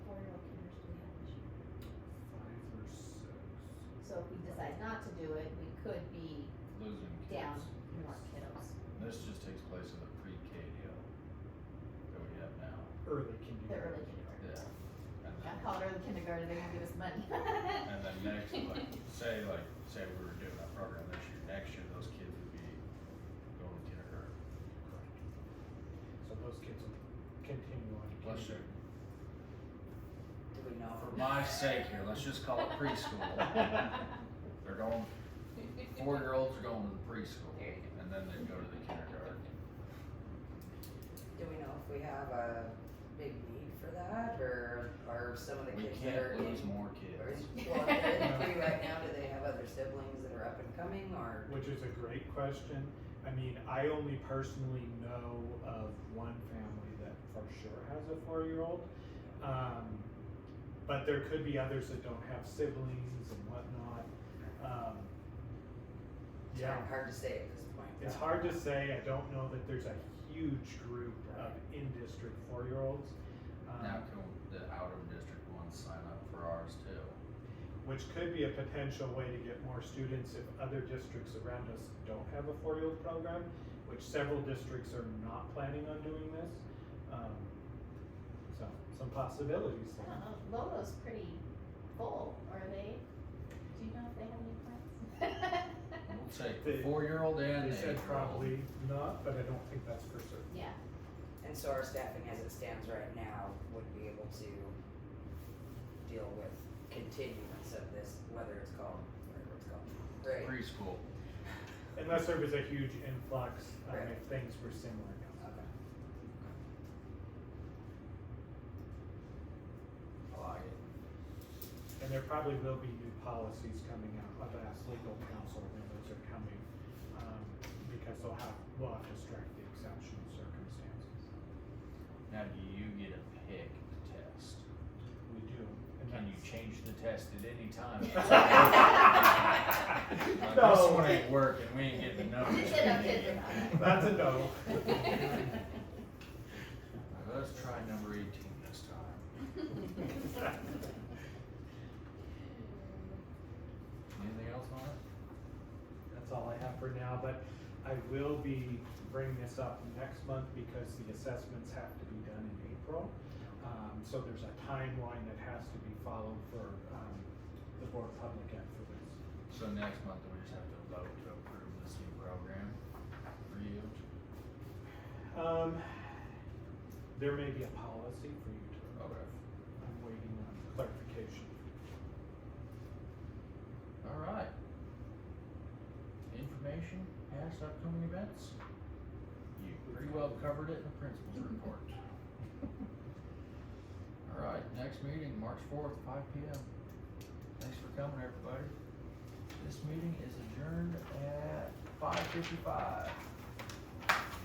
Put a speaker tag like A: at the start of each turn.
A: decide not to do it, we could be
B: losing
A: down
B: kids.
A: more kiddos.
B: And This just takes place in the pre-K deal that we have now.
C: early
A: The
C: kindergarten.
A: early kindergarten.
B: And
A: I
B: then,
A: called early kindergarten, they're gonna give us money.
B: and then next, like, say, like, say we were doing that program this year, next year those kids would be going to kindergarten.
C: So those kids will continue on. to
B: Let's,
C: kindergarten.
D: Do we know?
B: for my sake here, let's just call it preschool. They're going, four-year-olds are going to the preschool,
A: There you
B: and then they go to the kindergarten.
D: Do we know if we have a big need for that, or are some of the
B: We
D: kids that are
B: can't
D: in?
B: lose more
D: or
B: kids.
D: is- Well, if they're in three right now, do they have other siblings that are up and coming, or?
C: Which is a great question. I mean, I only personally know of one family that for sure has a four-year-old. Um, but there could be others that don't have siblings and whatnot. Um,
D: it's
C: yeah,
D: Hard to say at this point.
C: it's hard to say. I don't know that there's a huge group of in-district four-year-olds. Um,
B: Now, can the out-of-district ones sign up for ours too?
C: which could be a potential way to get more students if other districts around us don't have a four-year-old program, which several districts are not planning on doing this. Um, So, some possibilities
A: I
C: there.
A: don't know, Lolo's pretty full, are they, do you know if they have any plans?
B: We'll take
C: They-
B: four-year-old and
C: They
B: the
C: said
B: eight-year-old.
C: probably not, but I don't think that's for certain.
A: Yeah,
D: And so our staffing as it stands right now would be able to deal with continuance of this, whether it's called, whatever it's called, right?
B: Preschool.
C: Unless there was a huge influx, um,
D: Right.
C: if things were similar.
D: Okay.
B: I like it.
C: And there probably will be new policies coming out. I've asked legal counsel when those are coming, um, because they'll have, we'll have to strike the exceptional circumstances.
B: Now, do you get a pick the test?
C: We do. and
B: Can you
C: that's-
B: change the test at any time? Like, This
C: No,
B: one ain't working, we ain't getting the numbers.
A: Get up, kids, about it.
C: that's a no.
B: Let's try number eighteen this time. Anything else on it?
C: That's all I have for now, but I will be bringing this up next month because the assessments have to be done in April. Um, so there's a timeline that has to be followed for, um, the Board of Public Ed for this.
B: So next month, we just have to vote to approve this new program for you.
C: Um, there may be a policy for you to,
B: Okay.
C: I'm waiting on clarification.
B: All right. Information, past upcoming events? You pretty well covered it in the principal's report. All right, next meeting, March fourth, five P M. Thanks for coming, everybody. This meeting is adjourned at five fifty-five.